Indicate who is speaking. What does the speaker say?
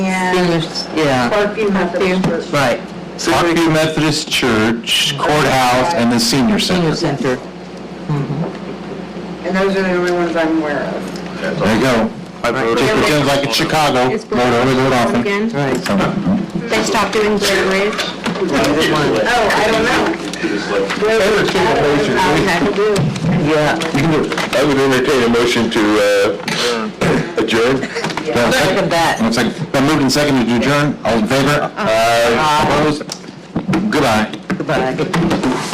Speaker 1: seniors, yeah,
Speaker 2: Parkview Methodist Church.
Speaker 1: right,
Speaker 3: Parkview Methodist Church, courthouse, and the senior
Speaker 1: senior
Speaker 3: center.
Speaker 1: center.
Speaker 2: And those are the only ones I'm aware of.
Speaker 3: There you go. Just pretend like it's Chicago,
Speaker 4: It's
Speaker 3: vote early, vote often.
Speaker 4: Again,
Speaker 1: Right.
Speaker 4: they stopped doing Glen Ridge.
Speaker 2: Oh, I don't know.
Speaker 1: Yeah.
Speaker 5: I would entertain a motion to uh, adjourn.
Speaker 1: Look at that.
Speaker 3: It's like, been moved and seconded to
Speaker 1: Uh,
Speaker 3: adjourn, all in favor? Aye. Opposed? Goodbye.
Speaker 1: Goodbye.